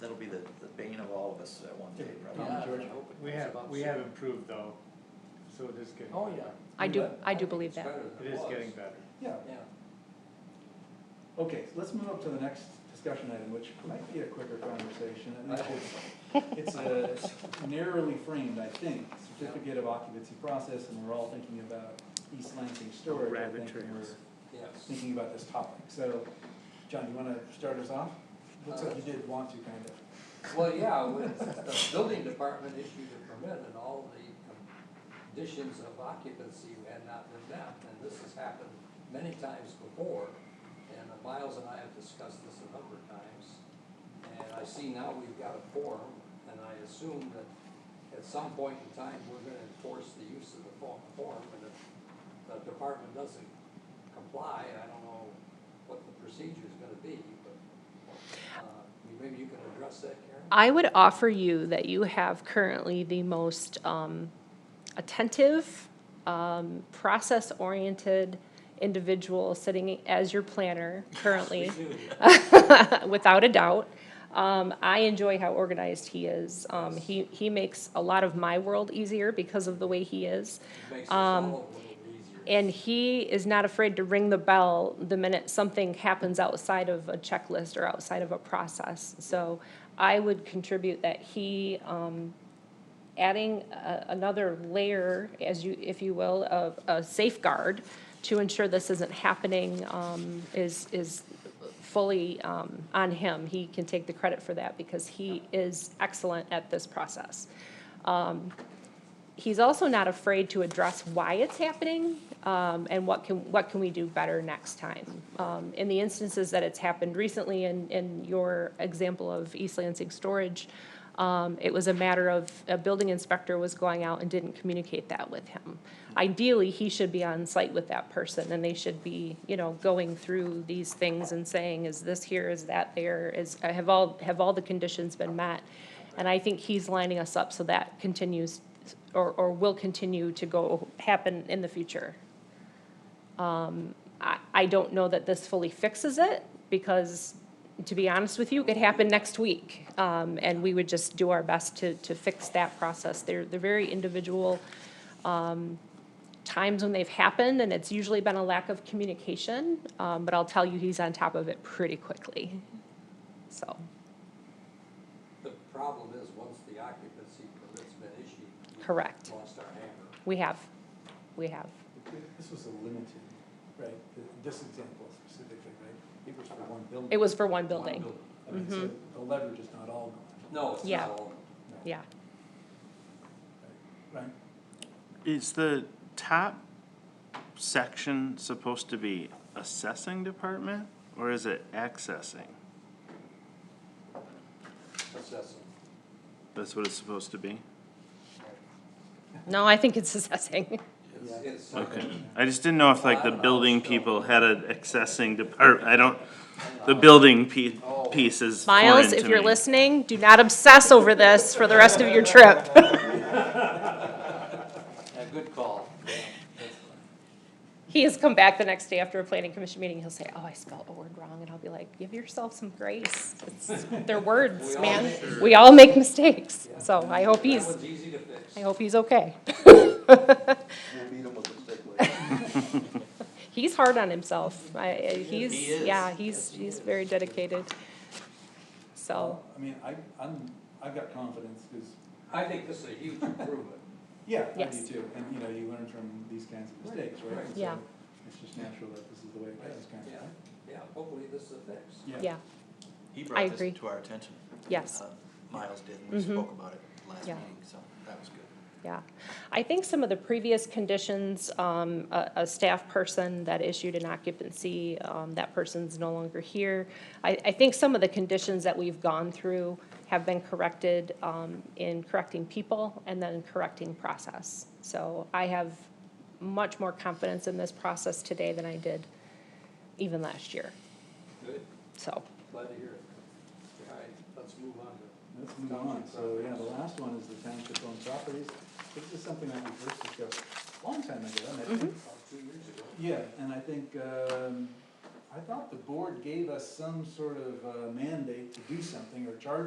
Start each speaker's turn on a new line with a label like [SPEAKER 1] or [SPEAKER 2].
[SPEAKER 1] that'll be the, the bane of all of us at one day, probably.
[SPEAKER 2] Yeah.
[SPEAKER 3] George.
[SPEAKER 2] We have, we have improved though, so it is getting.
[SPEAKER 3] Oh, yeah.
[SPEAKER 2] better.
[SPEAKER 4] I do,
[SPEAKER 3] But-
[SPEAKER 4] I do believe that.
[SPEAKER 2] It is getting better.
[SPEAKER 3] Yeah,
[SPEAKER 5] Yeah.
[SPEAKER 3] okay, so let's move up to the next discussion item, which might be a quicker conversation. At least It's it's a narrowly framed, I think, certificate of occupancy process, and we're all thinking about East Lansing storage, I
[SPEAKER 2] Rabbit
[SPEAKER 3] think, when
[SPEAKER 2] trails.
[SPEAKER 3] we're
[SPEAKER 5] Yes.
[SPEAKER 3] thinking about this topic. So, John, you wanna start us off? Looks like you did want to, kind of.
[SPEAKER 5] Well, yeah, when the building department issued a permit and all the conditions of occupancy had not been met, and this has happened many times before. And Miles and I have discussed this a number of times, and I see now we've got a form, and I assume that at some point in time, we're gonna enforce the use of the fo- form, and if the department doesn't comply, I don't know what the procedure's gonna be, but, uh, maybe you can address that, Karen?
[SPEAKER 4] I would offer you that you have currently the most um, attentive, um, process-oriented individual sitting as your planner currently,
[SPEAKER 5] We do.
[SPEAKER 4] without a doubt. Um, I enjoy how organized he is. Um, He, he makes a lot of my world easier because of the way he is.
[SPEAKER 5] Makes us
[SPEAKER 4] Um,
[SPEAKER 5] all a little easier.
[SPEAKER 4] And he is not afraid to ring the bell the minute something happens outside of a checklist or outside of a process. So I would contribute that he, um, adding a, another layer, as you, if you will, of a safeguard to ensure this isn't happening, um, is, is fully, um, on him. He can take the credit for that because he is excellent at this process he's also not afraid to address why it's happening um, and what can what can we do better next time. Um, in the instances that it's happened recently, in in your example of East Lansing Storage, um, it was a matter of a building inspector was going out and didn't communicate that with him. Ideally, he should be on site with that person, and they should be you know going through these things and saying, is this here, is that there, is have all have all the conditions been met. And I think he's lining us up so that continues or, or will continue to go, happen in the future. Um, I, I don't know that this fully fixes it, because, to be honest with you, it could happen next week. Um, and we would just do our best to, to fix that process. They're, they're very individual, um, times when they've happened, and it's usually been a lack of communication. Um, but I'll tell you, he's on top of it pretty quickly, so.
[SPEAKER 5] The problem is, once the occupancy permit's been issued. we've
[SPEAKER 4] Correct.
[SPEAKER 5] Lost our hammer.
[SPEAKER 4] We have, we have.
[SPEAKER 3] This was a limited, right, Th- this example specifically, right? It was for one building.
[SPEAKER 4] It was for one
[SPEAKER 5] One
[SPEAKER 4] building,
[SPEAKER 3] I
[SPEAKER 4] Mm-hmm.
[SPEAKER 3] mean, so the leverage is not all gone.
[SPEAKER 5] No, it's
[SPEAKER 4] Yeah.
[SPEAKER 5] not all.
[SPEAKER 3] No.
[SPEAKER 4] yeah.
[SPEAKER 3] Right?
[SPEAKER 6] Is the top section supposed to be assessing department or is it accessing?
[SPEAKER 5] assessing.
[SPEAKER 6] That's what it's supposed to be?
[SPEAKER 4] No, I think it's assessing.
[SPEAKER 3] Yeah.
[SPEAKER 5] It's, it's.
[SPEAKER 6] Okay. I just didn't know if like the building people had an accessing depart, I don't, the building pe- piece is foreign
[SPEAKER 4] Miles, if
[SPEAKER 6] to
[SPEAKER 4] you're
[SPEAKER 6] me.
[SPEAKER 4] listening, do not obsess over this for the rest of your trip.
[SPEAKER 5] A good call. Yeah, that's fine.
[SPEAKER 4] He has come back the next day after a planning commission meeting, he'll say, oh, I spelled a word wrong, and I'll be like, give yourself some grace. It's- They're
[SPEAKER 5] We
[SPEAKER 4] words,
[SPEAKER 5] all
[SPEAKER 4] man.
[SPEAKER 5] make- Sure.
[SPEAKER 4] We all make mistakes,
[SPEAKER 5] Yeah.
[SPEAKER 4] so I hope
[SPEAKER 5] That
[SPEAKER 4] he's,
[SPEAKER 5] one's easy to fix.
[SPEAKER 4] I hope he's okay.
[SPEAKER 1] We'll beat him with a stick later.
[SPEAKER 4] He's hard on himself. I, I-
[SPEAKER 1] He
[SPEAKER 4] he's,
[SPEAKER 1] is.
[SPEAKER 4] yeah, he's,
[SPEAKER 1] Yes, he
[SPEAKER 4] he's
[SPEAKER 1] is.
[SPEAKER 4] very dedicated. So,
[SPEAKER 3] I mean, I, I'm, I've got confidence, cause,
[SPEAKER 5] I think this is a huge improvement.
[SPEAKER 3] yeah, I do
[SPEAKER 4] Yes.
[SPEAKER 3] too, and you know, you learn from these kinds of mistakes, right?
[SPEAKER 5] right.
[SPEAKER 3] And so
[SPEAKER 4] Yeah.
[SPEAKER 3] It's just natural that this is the way it goes, kind
[SPEAKER 5] Yeah,
[SPEAKER 3] of,
[SPEAKER 5] yeah, hopefully this is a fix.
[SPEAKER 3] yeah.
[SPEAKER 4] yeah,
[SPEAKER 1] He
[SPEAKER 4] I
[SPEAKER 1] brought
[SPEAKER 4] agree.
[SPEAKER 1] this to our attention.
[SPEAKER 4] Yes.
[SPEAKER 1] Uh, Miles did, and we
[SPEAKER 4] Mhm.
[SPEAKER 1] spoke about it last
[SPEAKER 4] Yeah.
[SPEAKER 1] meeting, so that was good.
[SPEAKER 4] Yeah, I think some of the previous conditions, um, a, a staff person that issued an occupancy, um, that person's no longer here. I, I think some of the conditions that we've gone through have been corrected, um, in correcting people and then correcting process. So I have much more confidence in this process today than I did even last year,
[SPEAKER 5] Good,
[SPEAKER 4] so.
[SPEAKER 5] glad to hear it. All right, let's move on to.
[SPEAKER 3] Let's move on, so, yeah, the last one is the township owned properties, this is something that we first discussed a long time ago, and I think
[SPEAKER 4] Mm-hmm.
[SPEAKER 5] about two years ago.
[SPEAKER 3] Yeah, and I think, um, I thought the board gave us some sort of uh, mandate to do something or charge